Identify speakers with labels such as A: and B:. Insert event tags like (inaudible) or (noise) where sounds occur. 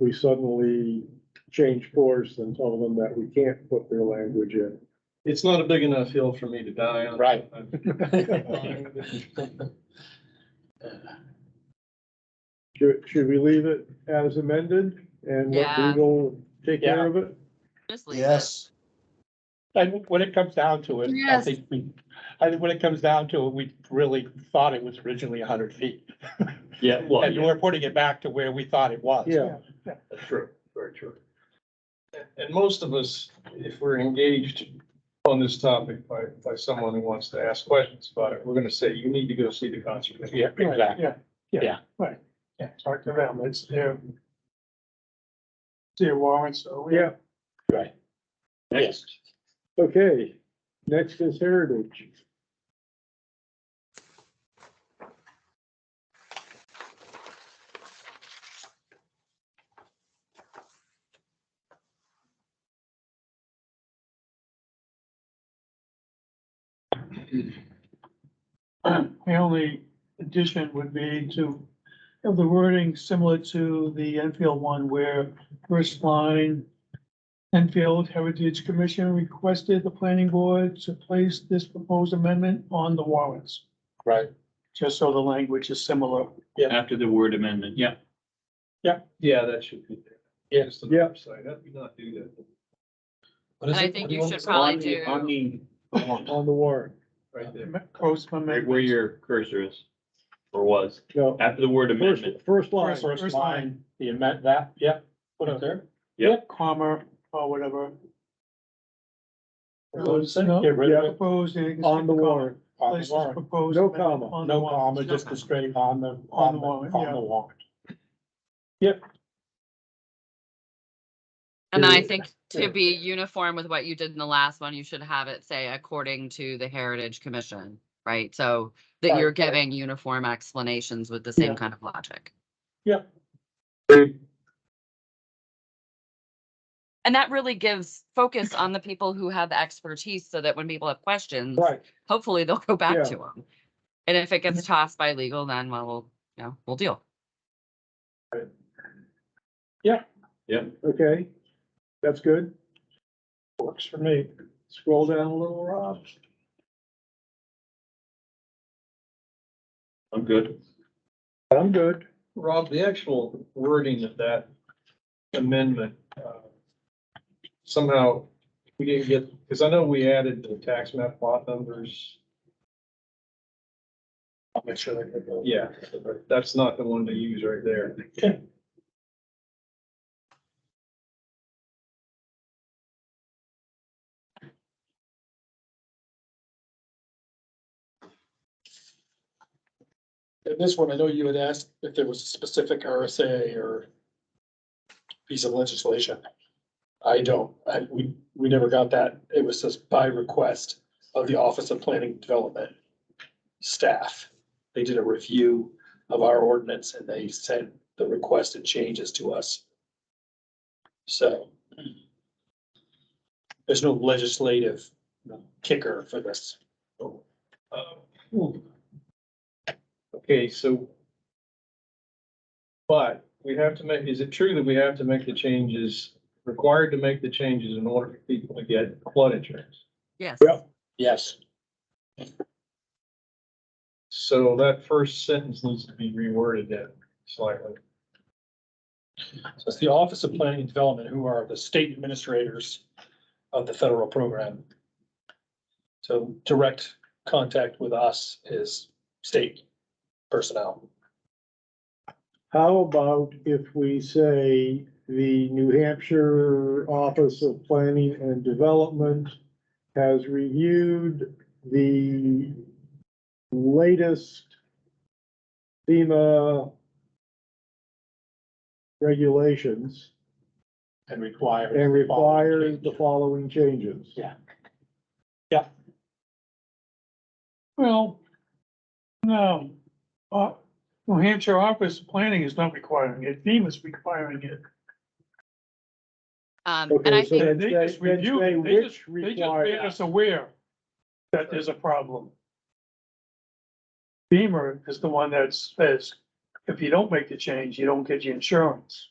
A: we suddenly change course and tell them that we can't put their language in.
B: It's not a big enough hill for me to die on.
C: Right.
D: (laughs)
A: Should, should we leave it as amended and let
E: Yeah.
A: legal take care of it?
E: Just leave it.
C: Yes,
F: And when it comes down to it, I
E: Yes.
F: think we, I think when it comes down to it, we really thought it was originally hundred feet.
B: Yeah, well,
F: And
B: yeah,
F: we're putting it back to where we thought it was.
A: Yeah.
B: true, very true. And most of us, if we're engaged on this topic by, by someone who wants to ask questions about it, we're gonna say, you need to go see the conservation.
F: Yeah, exactly.
G: Yeah,
F: Yeah.
G: yeah, right. Yeah, talk to them. It's their. Their warrants, so we
A: Yeah,
F: Right.
C: yes.
A: okay. Next is heritage.
G: The only addition would be to have the wording similar to the Enfield one where first line. Enfield Heritage Commission requested the planning board to place this proposed amendment on the warrants,
F: Right.
G: just so the language is similar.
D: After the word amendment, yeah.
B: Yeah, that should be there.
F: Yeah.
B: Just on the
A: Yeah.
B: website, how do you not do that?
E: And I think you should probably do.
D: On the, on the-
A: On the warrant.
B: Right there.
G: Post
D: right where
G: amendment.
D: your cursor is, or was,
A: No,
D: after the word
A: first,
D: amendment,
A: first line.
G: First
F: First line, the amendment, that, yeah, put it there.
G: Comma or whatever.
F: Get rid of it.
G: Proposed. and you can
A: On the
G: stick comma.
A: warrant.
F: On
G: Place
F: the
G: this
F: warrant.
G: proposed
A: No
G: amendment
A: comma.
G: on the
F: No
G: warrant.
F: comma, just a straight on the, on the,
G: warrant, yeah.
F: on the warrant.
E: And then I
A: to-
E: think to be uniform with what you did in the last one, you should have it say according to the Heritage Commission, right? So that you're giving uniform explanations with the same kind of logic.
F: Yeah.
E: And that really gives focus on the people who have the expertise so that when people have questions,
A: Right,
E: hopefully they'll go back
A: Yeah. Mm-hmm.
E: to them. And if it gets tossed by legal, then well, we'll, you know, we'll deal.
A: okay. That's good.
F: Works for me.
A: Scroll down a little, Rob.
D: I'm good.
A: I'm good.
B: Rob, the actual wording of that amendment, uh, somehow we didn't get, because I know we added the tax map lot numbers.
F: I'll make sure they get those.
B: Yeah, but that's not the one to use right there.
H: In this one, I know you had asked if there was a specific RSA or piece of legislation. I don't, I, we, we never got that. It was just by request of the Office of Planning and Development staff. They did a review of our ordinance and they sent the requested changes to us. So there's no legislative kicker for this.
B: Uh, Okay, so. But we have to make, is it true that we have to make the changes, required to make the changes in order for people to get flood insurance?
E: Yes.
A: Yep.
H: Yes.
B: So that first sentence needs to be reworded then slightly.
H: So it's the Office of Planning and Development, who are the state administrators of the federal program. So direct contact with us is state personnel.
A: How about if we say the New Hampshire Office of Planning and Development has reviewed the latest FEMA regulations
F: And require.
A: and requires the following changes?
F: Yeah.
G: Well, no, uh, New Hampshire Office of Planning is not requiring it, FEMA's requiring it.
E: Um, and I
A: Okay, so
E: think,
A: then
G: They
A: say-
G: just
A: then
G: review
A: say
G: it. They
A: which
G: They just made
A: requires.
G: us aware that there's a problem. FEMA is the one that says, if you don't make the change, you don't get your insurance.